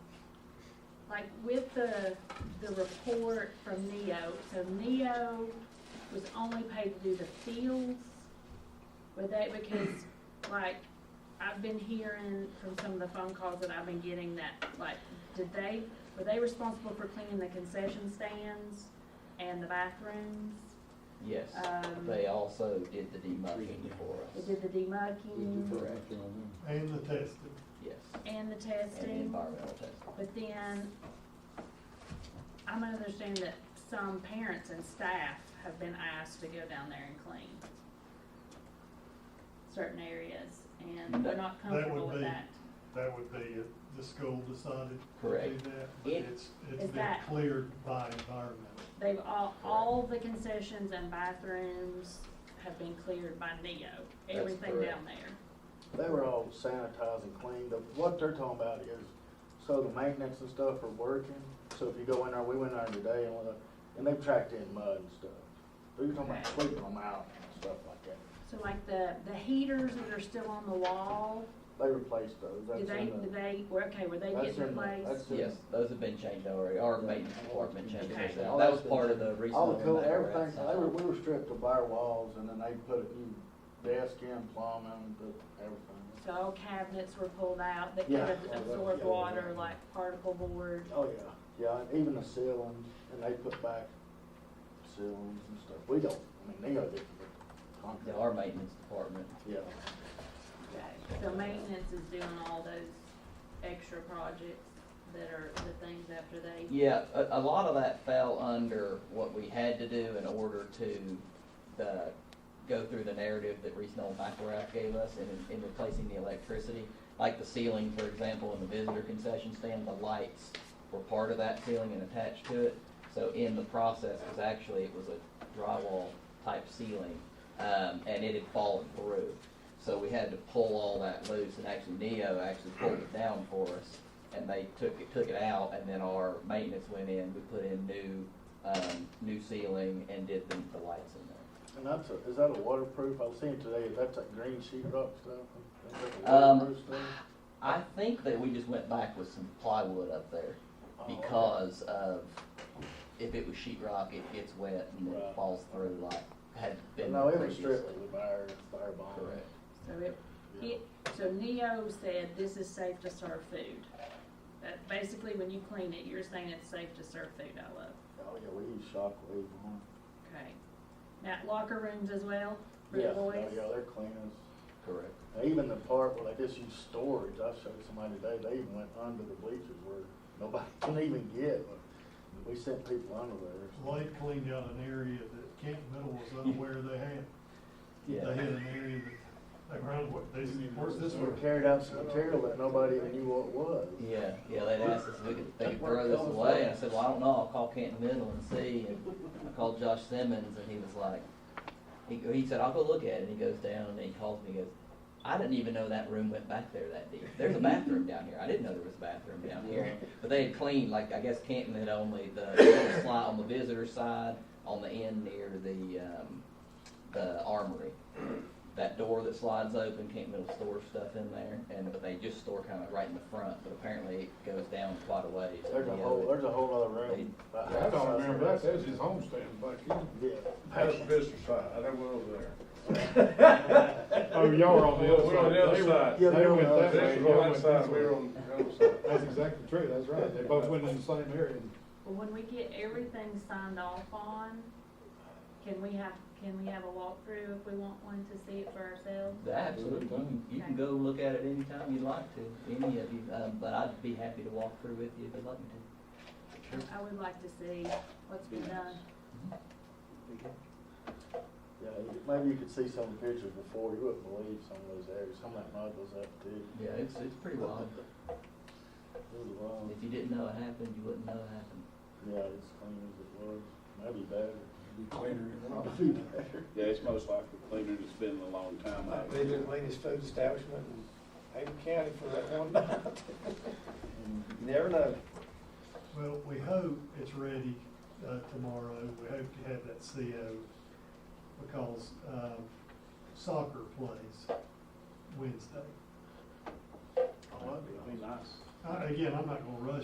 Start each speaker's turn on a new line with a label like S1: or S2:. S1: like with the, the report from Neo, so Neo was only paid to do the fields with that because like I've been hearing from some of the phone calls that I've been getting that like, did they, were they responsible for cleaning the concession stands and the bathrooms?
S2: Yes,
S1: Um,
S2: they also did the demucking for
S1: They
S2: us.
S1: did the demucking
S3: And the testing.
S2: Yes,
S1: and the
S2: and the
S1: testing?
S2: environmental testing.
S1: But then, I'm understanding that some parents and staff have been asked to go down there and clean certain areas, and they're not
S3: That would
S1: comfortable with
S3: be-
S1: that.
S3: That would be if the school decided to do
S2: Correct.
S3: that, but
S2: It-
S3: it's,
S1: Is
S3: it's been
S1: that-
S3: cleared by environmental.
S1: They've all, all the concessions and bathrooms have been cleared by Neo,
S2: That's
S1: everything
S2: correct.
S1: down there.
S4: They were all sanitized and cleaned, but what they're talking about is, so the maintenance and stuff are working, so if you go in there, we went in there today and, went up- and they've tracked in mud and stuff. But you're talking about sweeping them out and stuff like that.
S1: So like the, the heaters that are still on the wall,
S4: They replaced those, that's
S1: do they,
S4: in
S1: do
S4: the,
S1: they, were, okay, were they
S4: that's
S1: getting
S4: in the,
S1: replaced?
S4: that's in.
S2: Yes, those have been changed already, our maintenance department changed
S1: Okay.
S2: those out. That was part of the reason.
S4: All the
S2: we
S4: cool,
S2: went back around
S4: everything,
S2: side.
S4: they were, we were stripped of our walls and then they put a new desk in, plumbing, the- everything.
S1: So all cabinets were pulled out that could
S4: Yeah.
S1: ab- absorb
S4: Yeah.
S1: water like particle board.
S4: Oh, yeah, yeah, and even the ceilings, and they put back ceilings and stuff. We don't, I mean, they are different.
S2: Yeah, our maintenance department.
S4: Yeah.
S1: So maintenance is doing all those extra projects that are the things after they,
S2: Yeah, a, a lot of that fell under what we had to do in order to, the, go through the narrative that Reese Noel McElrath gave us in, in replacing the electricity. Like the ceiling, for example, in the visitor concession stand, the lights were part of that ceiling and attached to it. So in the process, because actually it was a drywall type ceiling, um, and it had fallen through. So we had to pull all that loose, and actually Neo actually pulled it down for us, and they took it, took it out, and then our maintenance went in, we put in new, um, new ceiling and did the, the lights in there.
S4: And that's a, is that a waterproof? I was seeing today, that's that green sheet rock stuff? Is that a
S2: Um,
S4: waterproof stuff?
S2: I think that we just went back with some plywood up there
S4: Oh, okay.
S2: because of, if it was sheetrock, it gets wet and it
S4: Right.
S2: falls through like had been
S4: No, it was
S2: previously.
S4: strictly with fire, fire bomb.
S2: Correct.
S1: so it,
S4: Yeah.
S1: it, so Neo said this is safe to serve food. That basically when you clean it, you're saying it's safe to serve food, I love,
S4: Oh, yeah, we use shockwave on.
S1: okay. Now locker rooms as well, for
S4: Yeah,
S1: the
S4: oh,
S1: boys?
S4: yeah, they're clean as.
S2: Correct.
S4: Now, Even the part where they just use storage, I showed somebody today, they even went under the bleachers where nobody can even get. We sent people under there.
S3: Light cleaned out an area that Kent Middle was unaware they had. They
S2: Yeah.
S3: had an area that, they ran, what, they said, where's this
S4: We
S3: one?
S4: carried out some material that nobody even knew what it was.
S2: Yeah, yeah, they'd asked us if we could, they could throw this away, and I said, well, I don't know, I'll call Canton Middle and see, and I called Josh Simmons, and he was like, he, he said, I'll go look at it, and he goes down, and he calls me, he goes, I didn't even know that room went back there that deep, there's a bathroom down here, I didn't know there was a bathroom down here, but they had cleaned, like, I guess Canton had only the, little slide on the visitor side, on the end near the, um, the armory, that door that slides open, Camp Middle store stuff in there, and but they just store kind of right in the front, but apparently it goes down quite a ways.
S4: There's a
S2: Yeah,
S4: whole,
S2: but-
S4: there's a whole other room. about
S5: I
S4: half the
S5: don't
S4: size
S5: remember that,
S4: of this.
S5: that's his homestand back in,
S4: Yeah.
S5: that's the business side, I never went over there.
S6: Oh, y'all were on the other
S5: We're on the other
S6: side.
S5: side.
S6: They
S4: Yeah,
S6: went-
S4: you're
S6: they
S4: on
S6: went
S4: the other
S6: that
S5: This
S6: way,
S5: was
S6: y'all
S5: on
S6: went this
S5: that side, we
S6: way.
S5: were on the other side.
S6: That's exactly true, that's right, they both went in the same area.
S1: Well, when we get everything signed off on, can we have, can we have a walkthrough if we want one to see it for ourselves?
S2: Absolutely, you can, you can go look at it anytime you'd like to, any of you, um, but I'd be happy to walk through with you if you'd like me to.
S1: I would like to see what's been done.
S4: Yeah, you- maybe you could see some of the pictures before, you wouldn't believe some of those areas, some of that mud was up too.
S2: Yeah, it's, it's pretty wild,
S4: It was wild.
S2: if you didn't know it happened, you wouldn't know it happened.
S4: Yeah, it's clean as it was, maybe better.
S5: Be cleaner than all.
S4: Maybe better.
S7: Yeah, it's most likely cleaner than it's been in a long time.
S8: Might be the cleanest food establishment in Ada County for that one night. You never know.
S3: Well, we hope it's ready, uh, tomorrow, we hope to have that CO, because, um, soccer plays Wednesday.
S7: It'd be nice.
S3: I- Again, I'm not gonna rush